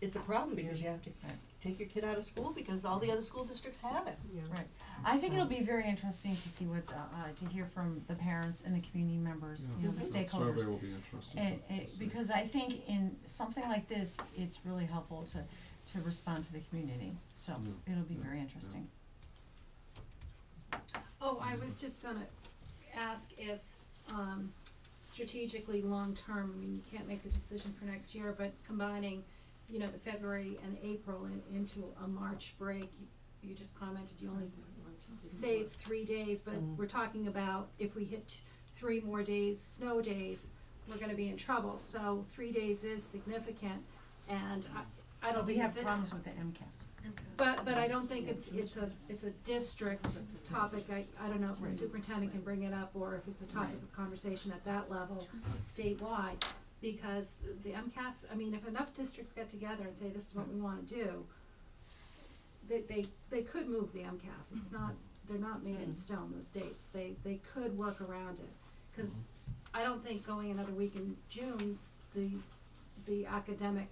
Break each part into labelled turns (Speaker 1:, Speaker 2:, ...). Speaker 1: it's a problem because you have to uh, take your kid out of school because all the other school districts have it.
Speaker 2: Yeah.
Speaker 3: Right. I think it'll be very interesting to see what, uh, uh, to hear from the parents and the community members, you know, the
Speaker 2: Mhm.
Speaker 3: stakeholders.
Speaker 4: Survey will be interesting.
Speaker 3: And,
Speaker 4: to- to
Speaker 3: and,
Speaker 4: see.
Speaker 3: because I think in something like this, it's really helpful to, to respond to the community, so
Speaker 4: Yeah,
Speaker 3: it'll be
Speaker 4: yeah,
Speaker 3: very interesting.
Speaker 5: Oh, I was just gonna ask if, um, strategically, long-term, I mean, you can't make the decision for next year, but combining, you know, the February and April in, into a March break, you, you just commented you only save three days, but
Speaker 3: Mm-hmm.
Speaker 1: Mm.
Speaker 5: we're talking about if we hit three more days, snow days, we're gonna be in trouble, so three days is significant, and I, I don't
Speaker 3: We
Speaker 5: think
Speaker 3: have
Speaker 5: it's in,
Speaker 3: problems with the MCAS.
Speaker 5: but, but I don't think it's, it's a, it's a district topic, I, I don't know if the superintendent can bring it up, or if it's a topic of conversation at that level statewide, because the MCAS, I mean, if enough districts get together and say, this is what we wanna do, they, they, they could move the MCAS, it's not, they're not made in stone, those dates, they, they could work around it. Cause I don't think going another week in June, the, the academic,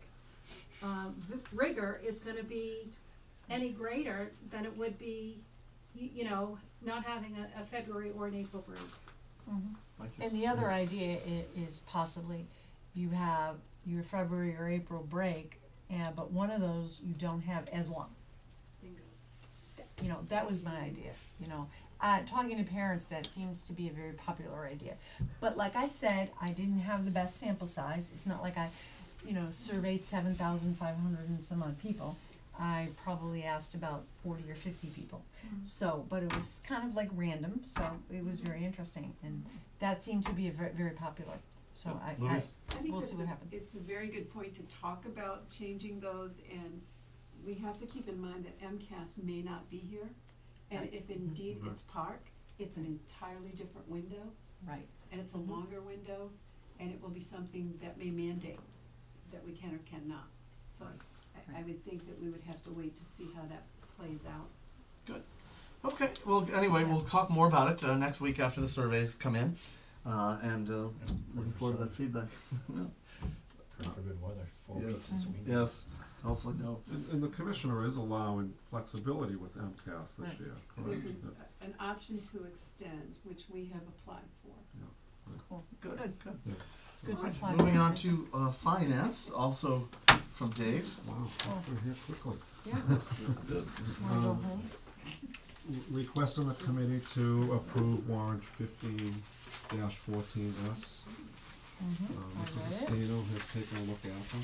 Speaker 5: um, v- rigor is gonna be any greater than it would be, you, you know, not having a, a February or an April break.
Speaker 3: Mm-hmm.
Speaker 4: Thank you.
Speaker 3: And the other idea i- is possibly you have your February or April break, and, but one of those you don't have as long. You know, that was my idea, you know, uh, talking to parents, that seems to be a very popular idea. But like I said, I didn't have the best sample size, it's not like I, you know, surveyed seven thousand five hundred and some odd people. I probably asked about forty or fifty people, so, but it was kind of like random, so it was very interesting, and that seemed to be a very, very popular, so I, I,
Speaker 4: Louise?
Speaker 2: I think
Speaker 3: We'll
Speaker 2: that's
Speaker 3: see what
Speaker 2: a-
Speaker 3: happens.
Speaker 2: It's a very good point to talk about changing those and we have to keep in mind that MCAS may not be here. And
Speaker 3: Right.
Speaker 2: if indeed
Speaker 4: Mhm.
Speaker 2: it's park, it's an entirely different window
Speaker 3: right,
Speaker 2: and it's a
Speaker 3: Mm-hmm.
Speaker 2: longer window and it will be something that may mandate that we can or cannot. So I, I
Speaker 3: Right.
Speaker 2: would think that we would have to wait to see how that plays out.
Speaker 6: Okay. Well, anyway, we'll talk more about it uh, next week after the surveys come in, uh, and uh, looking forward to that feedback.
Speaker 7: for good weather, four
Speaker 6: Yes.
Speaker 7: weeks this
Speaker 3: Mm-hmm.
Speaker 7: week.
Speaker 6: yes. Hopefully, no.
Speaker 4: And, and the commissioner is allowing flexibility with MCAS this
Speaker 3: Right.
Speaker 4: year, correct?
Speaker 2: There's an,
Speaker 4: Yeah,
Speaker 2: an option to extend, which we have applied for.
Speaker 3: cool,
Speaker 6: Good. Good. Good.
Speaker 3: it's good to
Speaker 6: Alright,
Speaker 3: apply.
Speaker 6: Moving on to uh, finance, also from Dave.
Speaker 4: Wow,
Speaker 3: Oh.
Speaker 4: we're here quickly.
Speaker 3: Yeah, wanna go
Speaker 4: Um,
Speaker 3: home?
Speaker 4: Request on the committee to approve warrant fifteen dash fourteen S.
Speaker 3: Mhm.
Speaker 4: Um,
Speaker 3: I
Speaker 4: Mrs.
Speaker 3: read it.
Speaker 4: Estino has taken a look at them.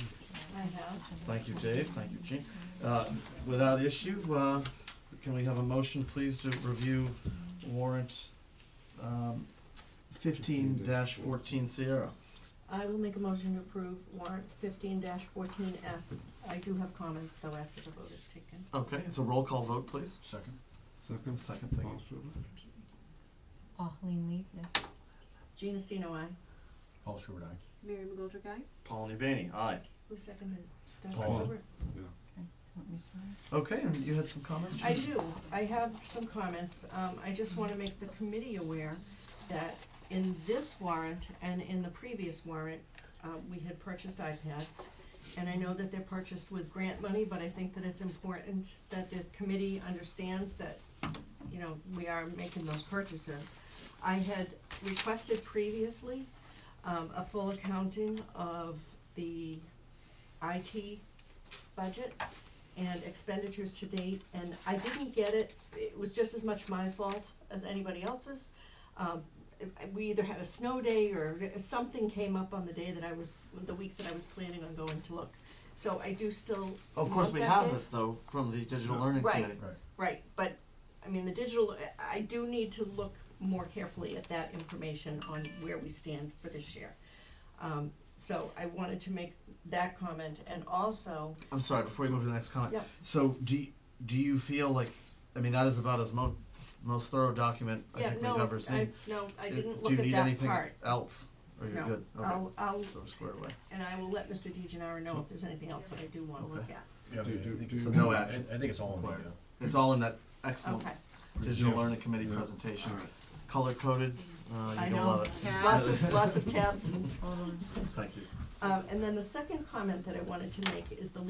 Speaker 2: I have.
Speaker 6: Thank you, Dave. Thank you, Jean. Uh, without issue, uh, can we have a motion, please, to review warrant um, 15-14 Sierra?
Speaker 1: I will make a motion to approve warrant fifteen fourteen S. I do have comments though after the vote is taken.
Speaker 6: Okay, it's a roll call vote, please. Second.
Speaker 4: Second,
Speaker 6: Second, thank
Speaker 4: Paul
Speaker 6: you.
Speaker 4: Schubert?
Speaker 3: Oh, lean lead, yes.
Speaker 1: Gina Stino, I.
Speaker 7: Paul Schubert, aye.
Speaker 2: Mary McGoldrick, aye?
Speaker 6: Paul Nivany, aye.
Speaker 1: Who seconded? Dr.
Speaker 6: Paul.
Speaker 1: Gilbert?
Speaker 3: Want me to sign it?
Speaker 6: Okay, and you had some comments?
Speaker 1: I
Speaker 6: Jean?
Speaker 1: do, I have some comments, um, I just wanna make the committee aware that in this warrant and in the previous warrant, um, we had purchased iPads. And I know that they're purchased with grant money, but I think that it's important that the committee understands that, you know, we are making those purchases. I had requested previously, um, a full accounting of the IT budget and expenditures to date, and I didn't get it, it was just as much my fault as anybody else's. Um, it- we either had a snow day or something came up on the day that I was, the week that I was planning on going to look. So I do still.
Speaker 6: Of course, we
Speaker 1: want that
Speaker 6: have
Speaker 1: data.
Speaker 6: it, though, from the Digital
Speaker 4: Yeah.
Speaker 6: Learning
Speaker 1: Right.
Speaker 6: Committee.
Speaker 7: Right.
Speaker 1: Right, but, I mean, the digital, I- I do need to look more carefully at that information on where we stand for this year. Um, so I wanted to make that comment, and also,
Speaker 6: I'm sorry, before you move to the next comment.
Speaker 1: Yeah.
Speaker 6: So do, y- do you feel like, I mean, that is about as mo- most thorough document I
Speaker 1: yeah,
Speaker 6: think
Speaker 1: no,
Speaker 6: we've ever seen.
Speaker 1: I, no, I
Speaker 6: Is-
Speaker 1: didn't
Speaker 6: Do
Speaker 1: look
Speaker 6: you
Speaker 1: at
Speaker 6: need
Speaker 1: that
Speaker 6: anything
Speaker 1: part.
Speaker 6: else? Or you're
Speaker 1: No,
Speaker 6: good? Okay.
Speaker 1: I'll, I'll,
Speaker 6: So we're squared away.
Speaker 1: and I will let Mr. DeGenaro know if there's anything else that I do wanna look
Speaker 6: Okay.
Speaker 1: at.
Speaker 7: Yeah, I
Speaker 4: Do-
Speaker 7: mean, I
Speaker 4: do-
Speaker 7: think
Speaker 4: do-
Speaker 7: it's-
Speaker 6: So no
Speaker 7: I-
Speaker 6: action
Speaker 7: I think it's all in
Speaker 6: required.
Speaker 7: there.
Speaker 6: It's all in that excellent
Speaker 1: Okay,
Speaker 6: Digital
Speaker 4: Yes.
Speaker 6: Learning Committee
Speaker 4: Yeah.
Speaker 6: presentation.
Speaker 4: All right.
Speaker 6: Color coded.
Speaker 1: I
Speaker 6: Uh, you're going
Speaker 1: know.
Speaker 6: to love it.
Speaker 1: lots of, lots of tabs.
Speaker 3: Hold on.
Speaker 6: Thank you.
Speaker 1: Um, and then the second comment that I wanted to make is the